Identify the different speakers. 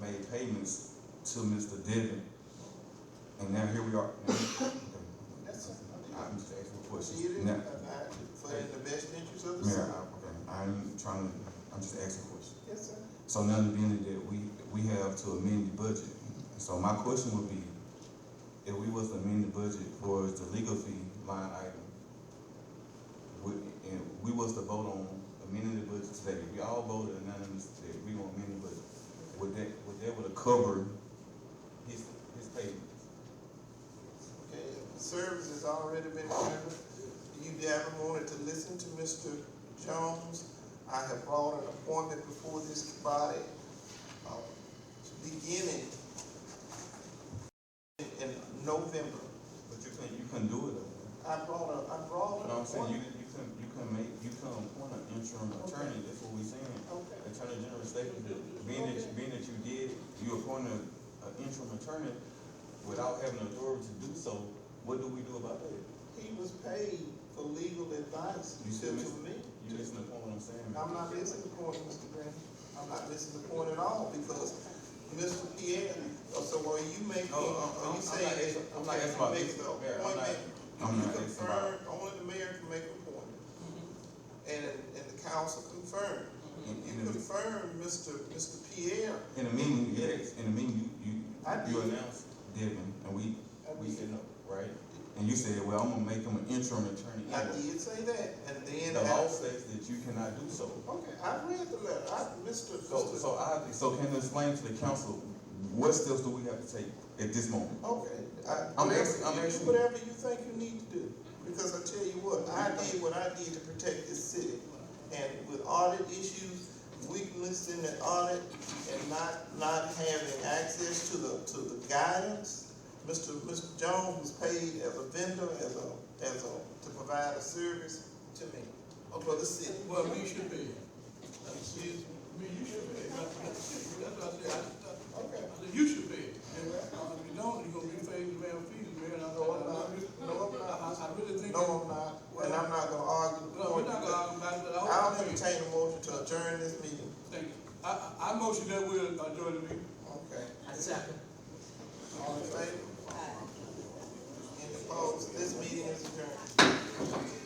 Speaker 1: made payments to Mr. Devon. And now here we are.
Speaker 2: That's it.
Speaker 1: I'm just asking a question.
Speaker 2: See, it is,
Speaker 1: Now-
Speaker 2: uh, uh, for in the best interest of the
Speaker 1: Mayor,
Speaker 2: city.
Speaker 1: I- okay, I'm trying to, I'm just asking a question.
Speaker 2: Yes, sir.
Speaker 1: So now the being that we, we have to amend the budget, so my question would be, if we was to amend the budget for the legal fee line item, would, and we was to vote on amending the budget today, we all voted unanimous that we want to amend the budget, would that, would that would cover his, his payments?
Speaker 2: Okay, the service has already been rendered. You haven't wanted to listen to Mr. Jones. I have brought an appointment before this body, uh, beginning in, in November.
Speaker 1: But you couldn't, you couldn't do it, though.
Speaker 2: I brought a, I brought
Speaker 1: you
Speaker 2: an
Speaker 1: know what I'm saying, you,
Speaker 2: appointment.
Speaker 1: you couldn't, you couldn't make, you couldn't appoint an interim attorney, that's what we saying.
Speaker 2: Okay.
Speaker 1: Attorney General statement, being that, being that you did, you appointed an interim attorney without having authority to do so, what do we do about that?
Speaker 2: He was paid for legal advice
Speaker 1: You
Speaker 2: to
Speaker 1: still miss-
Speaker 2: me.
Speaker 1: You listen to what I'm saying?
Speaker 2: I'm not missing the point, Mr. Green. I'm not missing the point at all, because Mr. Pierre, uh, so are you making,
Speaker 1: No, I'm, I'm,
Speaker 2: are
Speaker 1: I'm not
Speaker 2: you saying?
Speaker 1: asking, I'm not
Speaker 2: okay,
Speaker 1: asking about
Speaker 2: you
Speaker 1: this,
Speaker 2: make the
Speaker 1: Mayor, I'm not, I'm
Speaker 2: appointment, you
Speaker 1: not asking about,
Speaker 2: confirm, only the mayor can make an appointment. And, and the council confirmed.
Speaker 1: in, in
Speaker 2: You
Speaker 1: Mm-hmm. the,
Speaker 2: confirmed Mr. Mr. Pierre.
Speaker 1: in the meeting, yes, in the meeting, you,
Speaker 2: I
Speaker 1: you, you
Speaker 2: did.
Speaker 1: announced Devin, and we,
Speaker 2: I
Speaker 1: we
Speaker 2: did.
Speaker 1: said no, right? And you said, well, I'm gonna make him an interim attorney
Speaker 2: I
Speaker 1: anyway.
Speaker 2: did say that, and then.
Speaker 1: The law
Speaker 2: after-
Speaker 1: says that you cannot do so.
Speaker 2: Okay, I read the letter, I, Mr.
Speaker 1: So,
Speaker 2: Mr.
Speaker 1: so I, so can you explain to the council, what steps do we have to take at this moment?
Speaker 2: Okay, I,
Speaker 1: I'm
Speaker 2: whatever,
Speaker 1: asking- I'm
Speaker 2: you do
Speaker 1: asking.
Speaker 2: whatever you think you need to do, because I tell you what, I did what I did to protect this city. And with audit issues, weakness in the audit, and not, not having access to the, to the guidance, Mr. Mr. Jones was paid as a vendor, as a, as a, to provide a service to me, or for the city.
Speaker 3: Well, we should be,
Speaker 2: Excuse me.
Speaker 3: me, you should be, that's what I said, I,
Speaker 2: Okay.
Speaker 3: I said, you should be. And uh, if you don't, you're gonna be facing male fees, man, and I,
Speaker 2: No, I'm not.
Speaker 3: I,
Speaker 2: No, I'm not.
Speaker 3: I, I really think.
Speaker 2: No, I'm not, and I'm not gonna argue. the
Speaker 3: No, we're
Speaker 2: point.
Speaker 3: not gonna argue about it, but I
Speaker 2: I'll
Speaker 3: want to
Speaker 2: entertain a motion to adjourn this meeting.
Speaker 3: thank you. I, I, I motion that we adjourn the meeting.
Speaker 2: Okay.
Speaker 4: I second.
Speaker 2: All in favor? Any opposed? This meeting is adjourned.